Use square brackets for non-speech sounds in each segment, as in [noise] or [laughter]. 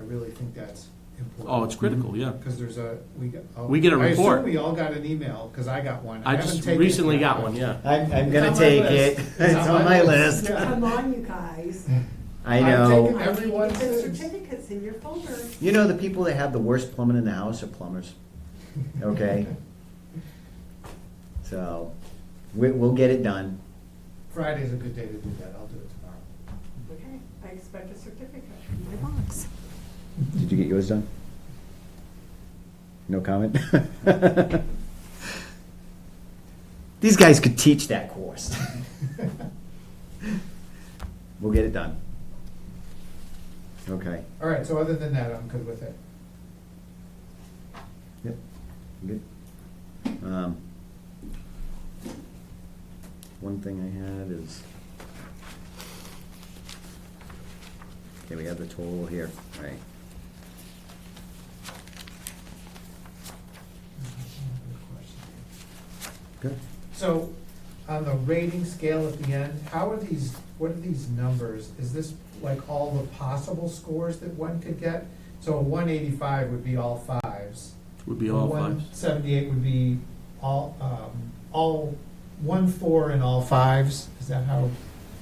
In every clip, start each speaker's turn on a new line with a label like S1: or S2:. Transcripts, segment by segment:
S1: really think that's important.
S2: Oh, it's critical, yeah.
S1: Because there's a, we got. I'll-
S2: We get a
S1: I
S2: report.
S1: assume we all got an email, because I got one.
S2: I
S1: haven't
S2: just
S1: taken it
S2: recently
S1: yet.
S2: got one, yeah.
S3: I'm, I'm
S1: It's
S3: gonna
S1: on my
S3: take it.
S1: list.
S3: It's on my list.
S1: Yeah.
S4: Come on, you guys.
S3: I
S1: I've
S3: know.
S1: taken- Everyone
S4: The
S1: says-
S4: Certificates in your folder.
S3: You know, the people that have the worst plumbing in the house are plumbers,
S1: [laughs]
S3: okay? So, we, we'll get it done.
S1: Friday's a good day to do that, I'll do it tomorrow.
S4: Okay, I expect a certificate in my box.
S3: Did you get yours done? No comment? [laughs] These guys could teach that course. [laughs] We'll get it done. Okay.
S1: [laughs] All right, so other than that, I'm good with it.
S3: Yep, good. Um, One thing I had is, okay, we have the total here, all right. Good.
S1: So, on the rating scale at the end, how are these, what are these numbers? Is this like all the possible scores that one could get? So one eighty-five would be all fives.
S2: Would be all
S1: One
S2: fives.
S1: seventy-eight would be all, um, all, one four and all fives, is that how?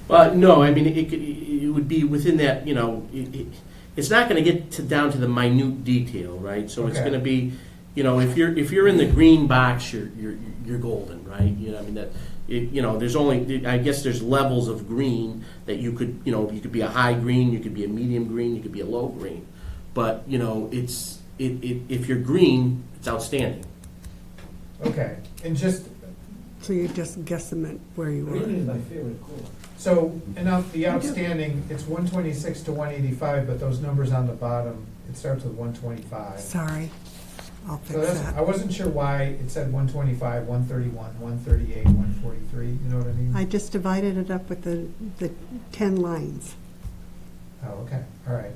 S2: Well, no, I mean, it could, it would be within that, you know, it, it- it's not gonna get to, down to the minute detail, right? So it's
S1: Okay.
S2: gonna be, you know, if you're, if you're in the green box, you're, you're, you're golden, right? You know, I mean, that, it, you know, there's only, I guess there's levels of green that you could, you know, you could be a high green, you could be a medium green, you could be a low green. But, you know, it's, it, it, if you're green, it's outstanding.
S1: Okay, and just,
S5: So you're just guessing at where you are.
S6: my favorite color.
S1: so, enough, the outstanding, it's one twenty-six to one eighty-five, but those numbers on the bottom, it starts with one twenty-five.
S5: Sorry, I'll
S1: So
S5: fix
S1: that's, I
S5: that.
S1: wasn't sure why it said one twenty-five, one thirty-one, one thirty-eight, one forty-three, you know what I mean?
S5: I just divided it up with the, the ten lines.
S1: Oh, okay, all right. [laughs]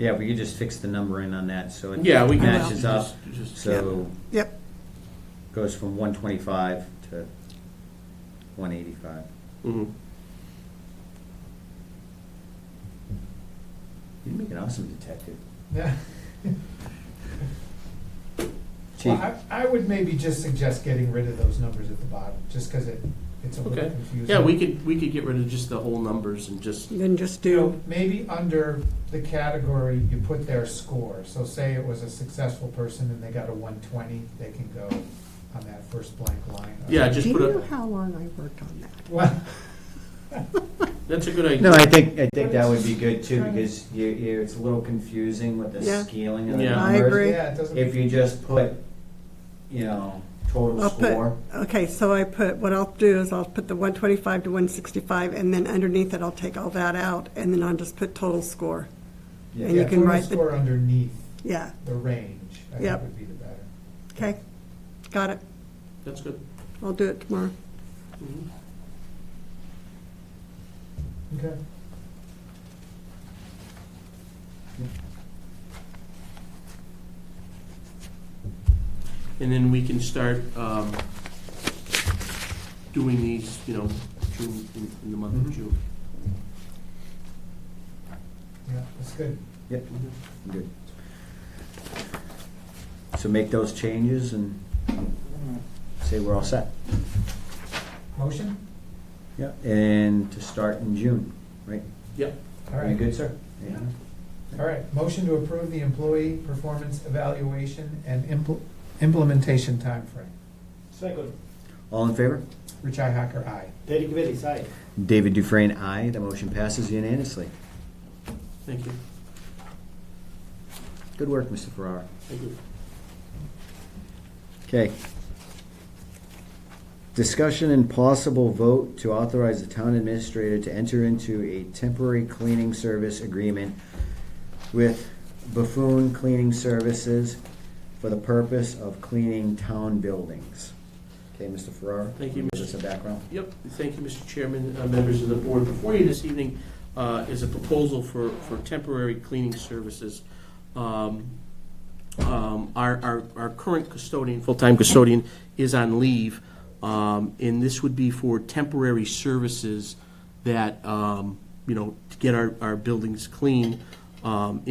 S3: Yeah, we could just fix the number in on that, so it
S2: Yeah, we can.
S3: matches up,
S2: Just- just-
S3: so
S5: Yep,
S3: goes from one twenty-five to one eighty-five.
S2: Mhm.
S3: You'd make an awesome detective.
S1: Yeah.
S3: Chief,
S1: Well, I, I would maybe just suggest getting rid of those numbers at the bottom, just because it, it's a little
S2: Okay.
S1: confusing.
S2: Yeah, we could, we could get rid of just the whole numbers and just
S5: then just
S1: You
S5: do,
S1: know, maybe under the category, you put their score, so say it was a successful person and they got a one twenty, they can go on that first blank line.
S2: Yeah, just
S5: do you
S2: put
S5: know
S2: a,
S5: how long I worked on that?
S1: Well,
S2: that's a good
S3: No,
S2: idea.
S3: I think, I think that would be good too, because you, you, it's a little confusing with the
S5: Yeah.
S3: scaling of the
S2: Yeah. I
S3: numbers.
S5: [laughs] agree.
S1: yeah, it doesn't.
S3: If you just put, you know, total
S5: I'll put-
S3: score,
S5: Okay, so I put, what I'll do is I'll put the one twenty-five to one sixty-five, and then underneath it, I'll take all that out, and then I'll just put total score. And
S3: yeah,
S5: you
S1: Yeah,
S5: can
S1: total
S5: write the-
S1: Score underneath
S5: Yeah,
S1: the range, I think
S5: Yep.
S1: would be the better.
S5: okay, got it.
S2: That's good.
S5: I'll do it tomorrow.
S2: Mhm.
S1: Okay.
S2: And then we can start um, doing these, you know, June, in in the month
S3: Mhm.
S2: of June.
S1: Yeah, that's good.
S3: yep, good. So make those changes and say we're all set.
S1: Motion?
S3: Yeah. And to start in June, right?
S2: Yep,
S1: All
S3: Are
S1: right.
S3: you good, sir?
S1: Yeah. All right, motion to approve the employee performance evaluation and impl- implementation timeframe.
S6: Second,
S3: All in favor?
S1: Rich Hacker, aye.
S6: Derek Bailey's aye.
S3: David Dufresne, aye. The motion passes unanimously.
S2: thank you,
S3: Good work, Mr. Ferrara.
S2: thank you.
S3: Okay. Discussion and possible vote to authorize the town administrator to enter into a temporary cleaning service agreement with Buffoon Cleaning Services for the purpose of cleaning town buildings. Okay, Mr. Ferrara?
S2: Thank you,
S3: Give us a background.
S2: Yep, thank you, Mr. Chairman, uh, members of the board. Before you this evening uh, is a proposal for, for temporary cleaning services. Um, um, Our, our, our current custodian, full-time custodian, is on leave, um, and this would be for temporary services that, um, you know, to get our, our buildings clean um,